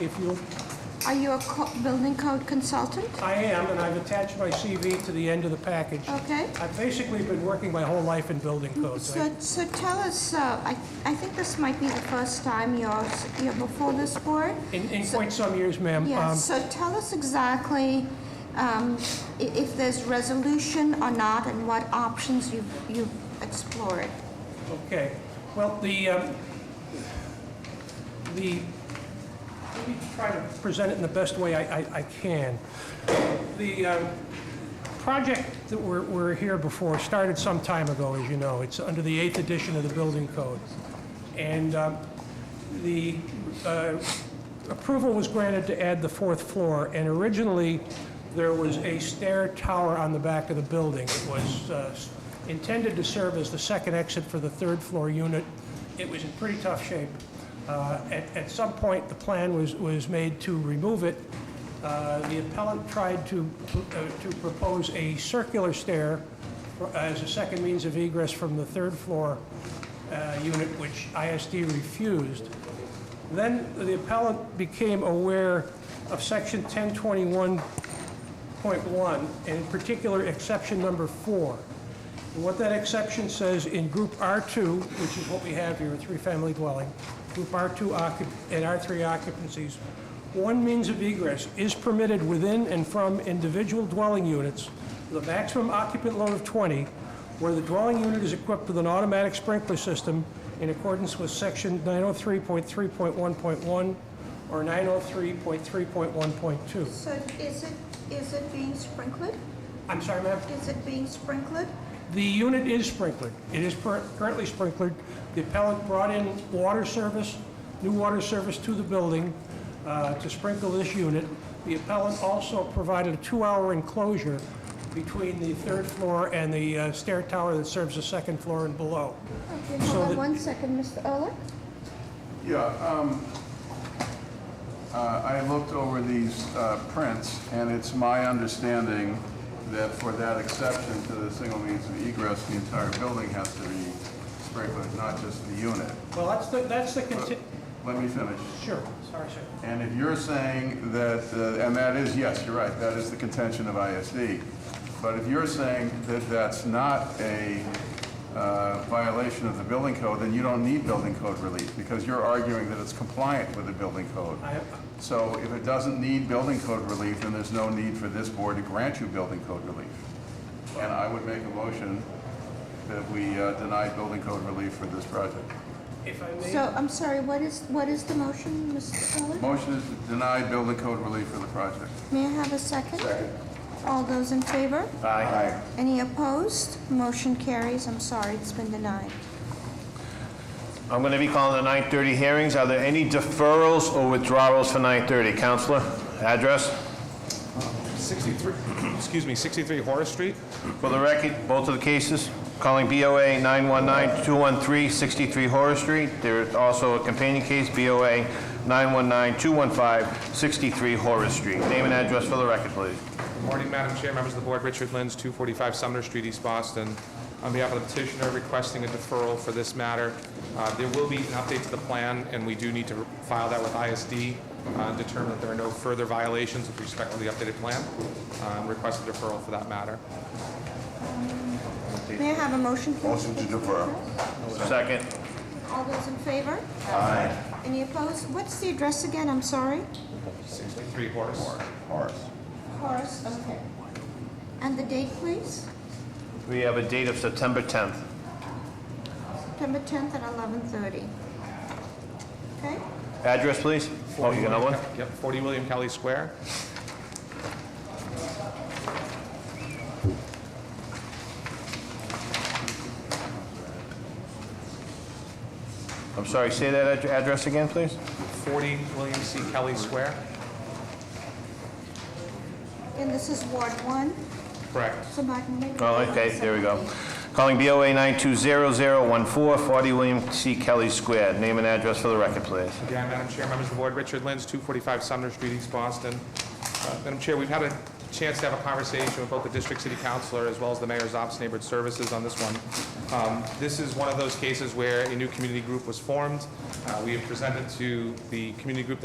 If you, Are you a co- building code consultant? I am, and I've attached my CV to the end of the package. Okay. I've basically been working my whole life in building codes. I- Oh. Mm-hmm. So, so tell us, uh, I, I think this might be the first time you're, s- you're before this board. In, in quite some years, ma'am. um, Yes, so tell us exactly um, i- if there's resolution or not and what options you've, you've explored. Um, Okay, well, the, um, the, let me try to present it in the best way I, I- I can. The um, project that we're, we're here before started some time ago, as you know. It's under the eighth edition of the building code. And um, the uh, approval was granted to add the fourth floor, and originally, there was a stair tower on the back of the building. It was uh, intended to serve as the second exit for the third-floor unit. It was in pretty tough shape. Uh, At at some point, the plan was was made to remove it. Uh, The appellant tried to uh, to propose a circular stair for- as a second means of egress from the third floor uh, unit, which ISD refused. Then the appellant became aware of section 1021.1, and in particular, exception number four. And What that exception says in group R2, which is what we have here, a three-family dwelling, group R2 occup- and R3 occupancies, one means of egress is permitted within and from individual dwelling units with a maximum occupant load of 20, where the dwelling unit is equipped with an automatic sprinkler system in accordance with section 903.3.1.1 or 903.3.1.2. So is it, is it being sprinkled? I'm sorry, ma'am? Is it being sprinkled? The unit is sprinklered. It is per- currently sprinklered. The appellant brought in water service, new water service to the building uh, to sprinkle this unit. The appellant also provided a two-hour enclosure between the third floor and the uh, stair tower that serves the second floor and below. Okay, So hold the- on one second, Mr. Ehrlich. Yeah, um, uh, I looked over these uh, prints, and it's my understanding that for that exception to the single means of egress, the entire building has to be sprinkled, not just the unit. Well, that's the, that's the, conti- Let me finish. sure, sorry, sir. And if you're saying that, uh, and that is, yes, you're right, that is the contention of ISD. But if you're saying that that's not a uh, violation of the building code, then you don't need building code relief because you're arguing that it's compliant with the building code. I- So if it doesn't need building code relief, then there's no need for this board to grant you building code relief. And I would make a motion that we uh, deny building code relief for this project. If I may, So I'm sorry, what is, what is the motion, Mr. Ehrlich? Motion is to deny building code relief for the project. May I have a second? All those in favor? Aye. Any opposed? Motion carries. I'm sorry, it's been denied. I'm going to be calling the 9:30 hearings. Are there any deferrals or withdrawals for 9:30? Counselor, address? 63, excuse me, 63 Horace Street? For the record, both of the cases, calling BOA 919-213-63 Horace Street. There is also a companion case, BOA 919-215-63 Horace Street. Name and address for the record, please. Morning, Madam Chair, members of the board, Richard Lins, 245 Sumner Street, East Boston. On behalf of the petitioner, requesting a deferral for this matter. Uh, There will be an update to the plan, and we do need to file that with ISD, uh, and determine that there are no further violations with respect to the updated plan. Um, Request a deferral for that matter. May I have a motion, please? Motion to defer. Second. All those in favor? Aye. Any opposed? What's the address again? I'm sorry. 63 Horace. Horace, okay. And the date, please? We have a date of September 10th. September 10th at 11:30. Okay? Address, please? Oh, you got another one? Yep, 40 William Kelly Square. I'm sorry, say that ad- address again, please? 40 William C. Kelly Square. And this is Ward 1, Correct. so I can make... Oh, okay, there we go. Calling BOA 9200014, 40 William C. Kelly Square. Name and address for the record, please. Again, Madam Chair, members of the board, Richard Lins, 245 Sumner Street, East Boston. Uh, Madam Chair, we've had a chance to have a conversation with both the district city councilor as well as the mayor's office of neighborhood services on this one. Um, This is one of those cases where a new community group was formed. Uh, We have presented to the community group